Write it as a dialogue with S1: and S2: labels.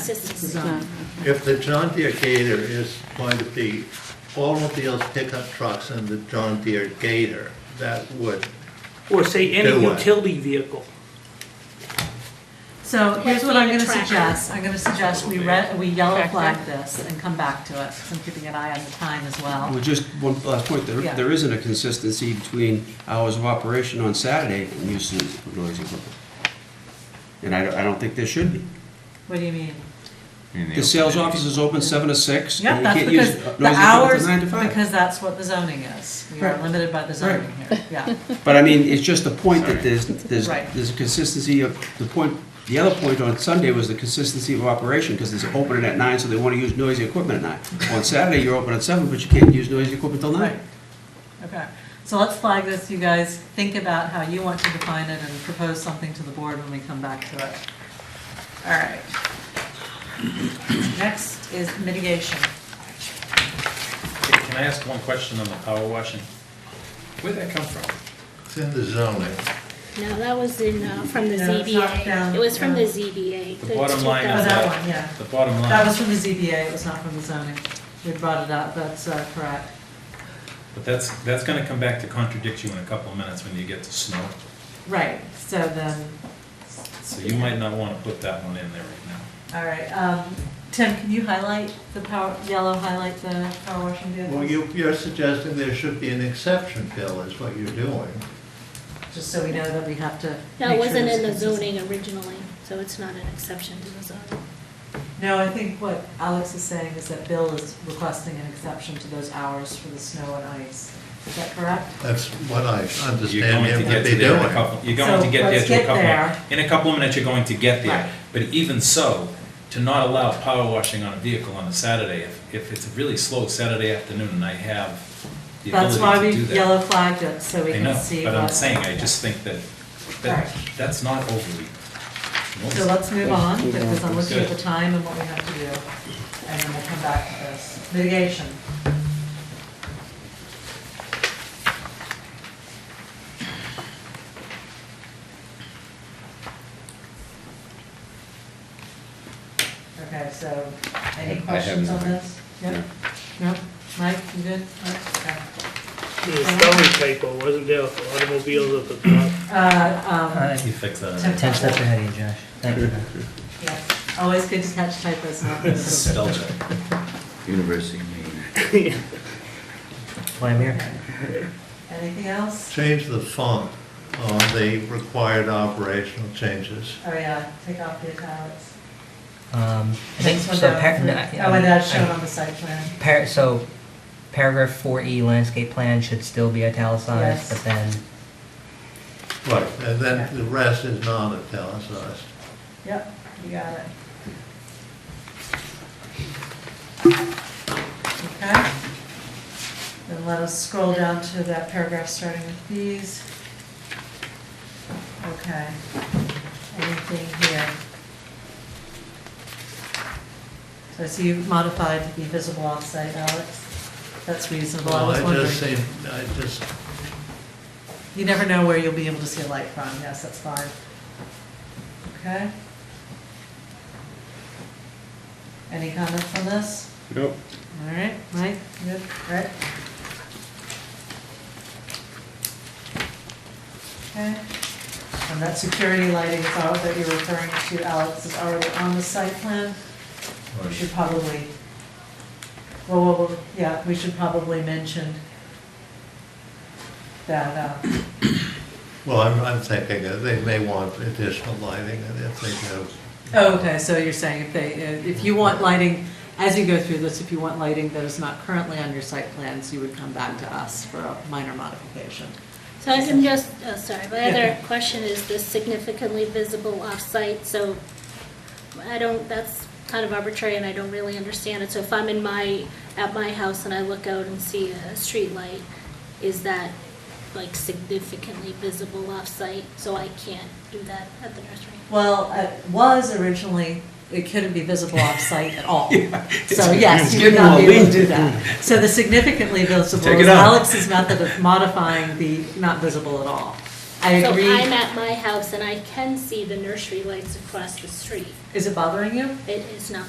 S1: Consistency.
S2: If the John Deere Gator is going to be automobiles, pickup trucks, and the John Deere Gator, that would,
S3: Or say any
S2: Do what?
S3: utility vehicle.
S4: So here's what I'm
S1: being a
S4: gonna
S1: tracker.
S4: suggest, I'm gonna suggest we red, we yellow flag this and come back to it, 'cause I'm keeping an eye on the time as well.
S5: Well, just one last point, there,
S4: Yeah.
S5: there isn't a consistency between hours of operation on Saturday and use of noise equipment. And I, don't- I don't think there should be.
S4: What do you mean?
S5: The sales office is open seven to six,
S4: Yep,
S5: and you
S4: that's
S5: can't use
S4: because
S5: noise
S4: the
S5: equipment
S4: hours,
S5: till nine to five.
S4: because that's what the zoning is, we are
S5: Right.
S4: limited by the zoning here, yeah.
S5: But I mean, it's just the point that there's, there's,
S4: Right.
S5: there's a consistency of, the point, the other point on Sunday was the consistency of operation, because there's opening at nine, so they want to use noisy equipment at nine. On Saturday, you're open at seven, but you can't use noisy equipment till nine.
S4: Okay, so let's flag this, you guys think about how you want to define it and propose something to the board when we come back to it. All right. Next is mitigation.
S6: Can I ask one question on the power washing? Where'd that come from?
S2: it's in the zoning.
S1: No, that was in, uh, from the
S4: No, it's not down,
S1: ZBA. It was from the
S4: yeah.
S1: ZBA.
S6: The bottom line
S4: Oh,
S6: is
S4: that one, yeah.
S6: The bottom
S4: That
S6: line,
S4: was from the ZBA, it was not from the zoning. We brought it up, that's uh, correct.
S6: but that's, that's gonna come back to contradict you in a couple of minutes when you get to snow.
S4: Right, so then,
S6: So you might not wanna put that one in there right now.
S4: all right, um, Tim, can you highlight the power, yellow highlight the power washing vehicles?
S2: Well, you, you're suggesting there should be an exception, Bill, is what you're doing.
S4: Just so we know that we have to.
S1: No, it
S4: make sure
S1: wasn't
S4: it's
S1: in the
S4: consistent.
S1: zoning originally, so it's not an exception to the zoning.
S4: No, I think what Alex is saying is that Bill is requesting an exception to those hours for the snow and ice. Is that correct?
S2: That's what I
S6: You're
S2: understand him
S6: going to
S2: to
S6: get
S2: be
S6: to there in a
S2: doing.
S6: couple, you're going
S4: So
S6: to get
S4: let's
S6: there to
S4: get
S6: a couple,
S4: there.
S6: in a couple of minutes, you're going to get
S4: Right.
S6: there. But even so, to not allow power washing on a vehicle on a Saturday, if, if it's a really slow Saturday afternoon and I have the
S4: That's why
S6: ability
S4: we
S6: to do that.
S4: yellow flagged it, so we
S6: I
S4: can
S6: know,
S4: see.
S6: but I'm
S4: what-
S6: saying, I just think that,
S4: Right.
S6: that, that's not overly.
S4: So let's move on, because I'm looking at the
S6: Good.
S4: time and what we have to do, and then we'll come back to this. Mitigation. Okay, so any
S5: I- I have
S4: questions on
S5: nothing.
S4: this? Yep. No? Mike, you good? Okay.
S7: The spelling typo wasn't there for automobiles at the top.
S4: Uh, um,
S6: You fix that.
S4: Tim-
S8: Ten steps ahead of you, Josh. Thank you.
S4: yeah, always good to catch typos, not
S6: Spell check.
S9: University of Maine.
S8: That's why I'm here.
S4: Anything else?
S2: Change the font on the required operational changes.
S4: Oh, yeah, take off the italics.
S8: Um, I think,
S4: Next one
S8: so
S4: down.
S8: par- no,
S4: Oh, and that's shown
S8: I-
S4: on the site plan.
S8: I- par- so paragraph four E landscape plan should still be
S4: Yes.
S8: italicized, but then,
S2: Right. And then the rest is not italicized.
S4: Yep, you got it. Okay. Then let us scroll down to that paragraph starting with these. Okay. Anything here? So I see you've modified to be visible on-site, Alex. That's reasonable, I
S2: Well,
S4: was
S2: I just
S4: wondering.
S2: seem, I just,
S4: You never know where you'll be able to see a light from, yes, that's fine. Okay? Any comments on this?
S5: Nope.
S4: All right, Mike, good, right? Okay, and that security lighting thought that you're referring to, Alex, is already on the site plan.
S6: Oh,
S4: We should probably, well, well, well, yeah, we should probably mention that, uh,
S2: well, I'm, I'm thinking that they may want additional lighting, and if they do,
S4: Oh, okay, so you're saying if they, uh, if you want lighting, as you go through this, if you want lighting that is not currently on your site plans, you would come back to us for a minor modification.
S1: So I'm just, oh, sorry, my
S4: Yeah.
S1: other question is the significantly visible off-site, so I don't, that's kind of arbitrary and I don't really understand it. So if I'm in my, at my house and I look out and see a street light, is that like significantly visible off-site? So I can't do that at the nursery?
S4: Well, it was originally, it couldn't be visible off-site at all. So yes, you would
S5: getting
S4: not be able to
S5: all
S4: do that. So the significantly visible
S5: Take it
S4: is
S5: out.
S4: Alex's method of modifying the not visible at all. I agree.
S1: So I'm at my house and I can see the nursery lights across the street.
S4: Is it bothering you?
S1: It is not